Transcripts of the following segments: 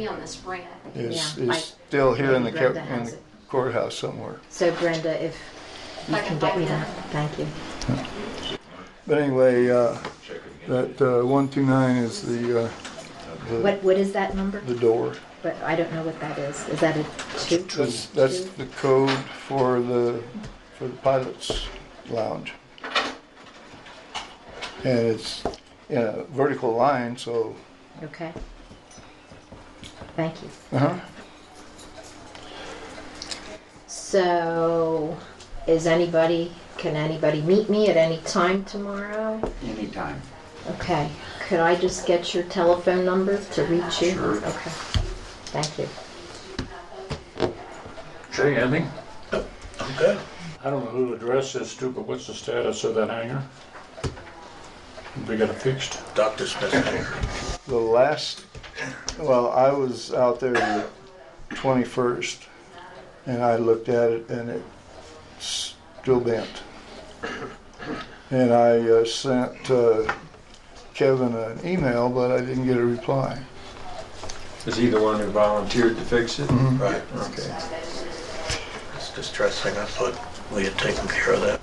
be on this grant. is, Yeah, I- is still here in the, ca- Brenda in has the it. courthouse somewhere. So Brenda, if you I can can get me find that, thank you. But anyway, uh, that uh, 129 is the, uh, the, What, what is that number? the door. But I don't know what that is. Is that a two? That's, that's Two? the code for the, for the pilot's lounge. And it's in a vertical line, so, Okay. Thank you. uh-huh. So, is anybody, can anybody meet me at any time tomorrow? Anytime. Okay, could I just get your telephone number to reach you? Sure. Okay, thank you. Say, Andy, I'm good. I don't know who addressed this to, but what's the status of that hangar? We got it fixed. Dr. Smith here. The last, well, I was out there the 21st, and I looked at it, and it still bent. And I uh, sent uh, Kevin an email, but I didn't get a reply. Is he the one who volunteered to fix it? Right. Okay. It's distressing. I thought we had taken care of that.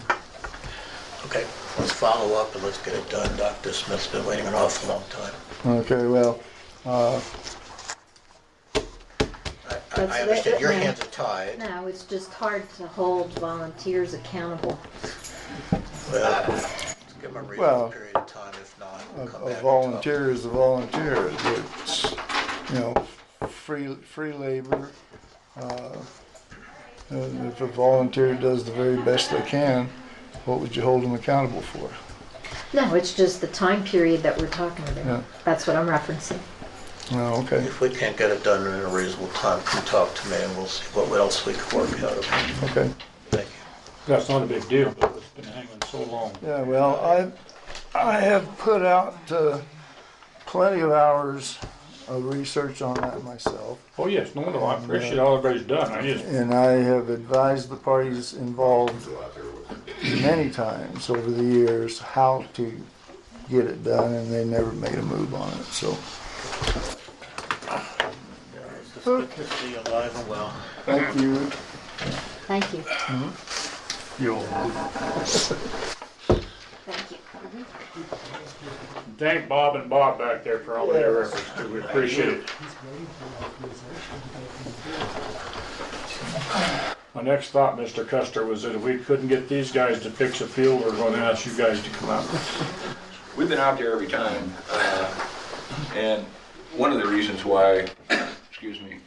Okay, let's follow up and let's get it done. Dr. Smith's been waiting an awful long time. Okay, well, uh, I- I, That's I it, understand your ma'am. hands are tied. No, it's just hard to hold volunteers accountable. Well, give them a Well, reasonable period of time. If not, a, we'll come back. a and volunteer is a volunteer. It's, you know, free, free labor. Uh, and if a volunteer does the very best they can, what would you hold them accountable for? No, it's just the time period that we're talking Yeah. about. That's what I'm referencing. Oh, talk. okay, If we can't get it done in a reasonable time, come talk to me and we'll see what else we can work out. Okay. okay. Thank you. That's not a big deal, but it's been hanging so long. Yeah, well, I, I have put out uh, plenty of hours of research on that myself. Oh, yes, no, no, I appreciate all everybody's done. I just, And I have advised the parties involved many times over the years how to get it done, and they never made a move on it, so. It's just good to see you alive and well. Thank you. Thank you. You'll. Thank you. thank Bob and Bob back there for all their efforts too. We appreciate it. My next thought, Mr. Custer, was that if we couldn't get these guys to fix a field, we're gonna ask you guys to come out. We've been out there every time. uh, And one of the reasons why, excuse me,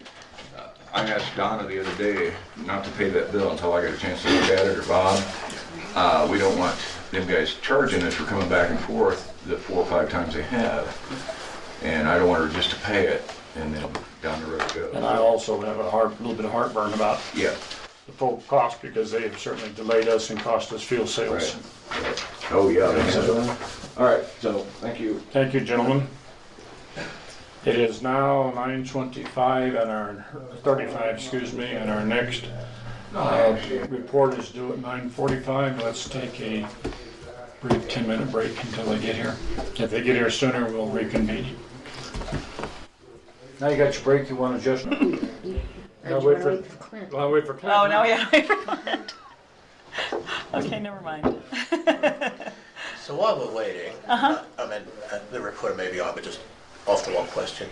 uh, I asked Donna the other day not to pay that bill until I got a chance to look at it, or Bob. Uh, We don't want them guys charging us for coming back and forth the four or five times they have. And I don't want her just to pay it and then down the road it And I goes. also have a heart, a little bit of heartburn about Yeah. the full cost because they have certainly delayed us and cost us fuel sales. Right. Oh, yeah. they have. All right, so, thank you. Thank you, gentlemen. It is now nine twenty-five and our, thirty-five, excuse me, and our next uh, report is due at nine forty-five. Let's take a brief ten-minute break until they get here. If they get here sooner, we'll reconvene. Now you got your break, you want to just, Or I'll do you wait wanna for- wait for Clint? I'll wait for Clint. Oh, now we have to Clint. Okay, never mind. So while we're waiting, Uh-huh. uh I mean, uh, the reporter may be on, but just off the wall question.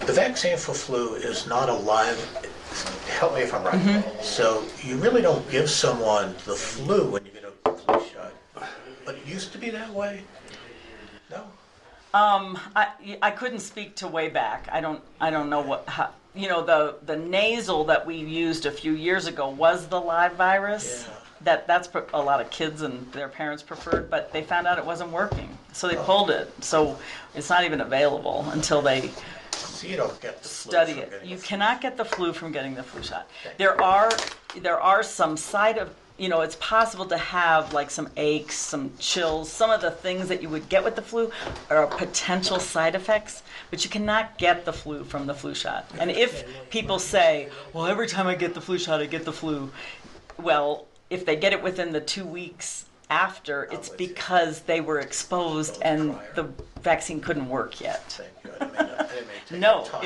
The vaccine for flu is not a live, help me if I'm right. Mm-hmm. So you really don't give someone the flu when you get a flu shot. But it used to be that way? No? Um, I, I couldn't speak to way back. I don't, I don't know what, how, you know, the, the nasal that we used a few years ago was the live virus. Yeah. That, that's pre- a lot of kids and their parents preferred, but they found out it wasn't working. So they pulled it. So it's not even available until they So you don't get the flu. study from it. getting You the flu. cannot get the flu from getting the flu shot. Thank There are, there are some side of, you know, it's possible to have like some aches, some chills, some of the things that you would get with the flu are potential side effects, but you cannot get the flu from the flu shot. And if people say, well, every time I get the flu shot, I get the flu, well, if they get it within the two weeks after, Oh, it's because they were exposed and the vaccine couldn't work yet. Thank you. I didn't mean to- I didn't mean to take No, your time.